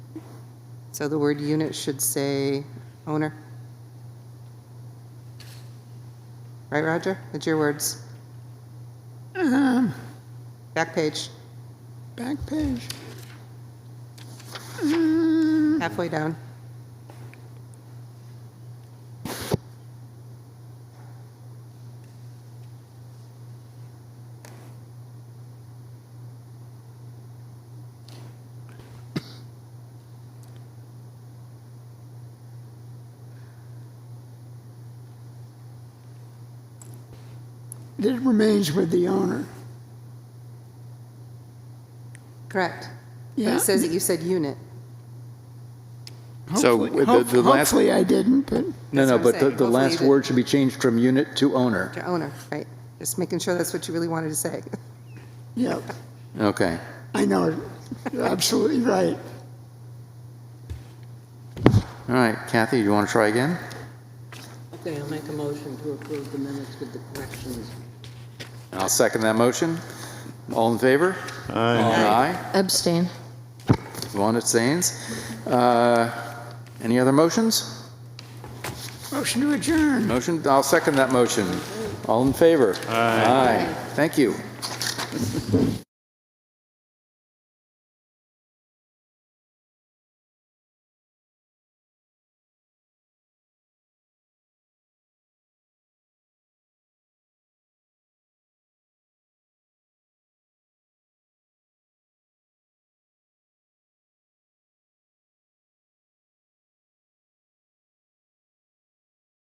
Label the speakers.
Speaker 1: So the word unit should say owner. Right, Roger? It's your words.
Speaker 2: Um,
Speaker 1: Back page,
Speaker 2: back page. Um,
Speaker 1: Mm. halfway down.
Speaker 2: it remains with the owner.
Speaker 1: Correct.
Speaker 2: Yeah.
Speaker 1: It says that you said unit.
Speaker 3: So,
Speaker 4: uh,
Speaker 2: Hopefully-
Speaker 3: with the-
Speaker 2: hope-
Speaker 3: the last-
Speaker 2: Hopefully I didn't, but
Speaker 1: That's
Speaker 4: No, no,
Speaker 1: what I'm
Speaker 4: but
Speaker 1: saying.
Speaker 4: the, the
Speaker 1: Hopefully
Speaker 4: last
Speaker 1: that-
Speaker 4: word should be changed from unit to owner.
Speaker 1: Your owner, right? Just making sure that's what you really wanted to say.
Speaker 2: yeah,
Speaker 4: Okay.
Speaker 2: I know, you're absolutely right.
Speaker 4: All right, Kathy, you want to try again?
Speaker 5: Okay, I'll make a motion to approve the minutes with the corrections.
Speaker 4: I'll second that motion. All in favor? Aye.
Speaker 6: Abstain.
Speaker 4: Aye. One abstains. Uh, Any other motions?
Speaker 2: Motion to adjourn.
Speaker 4: Motion, I'll second that motion. All in favor? Aye. Thank you.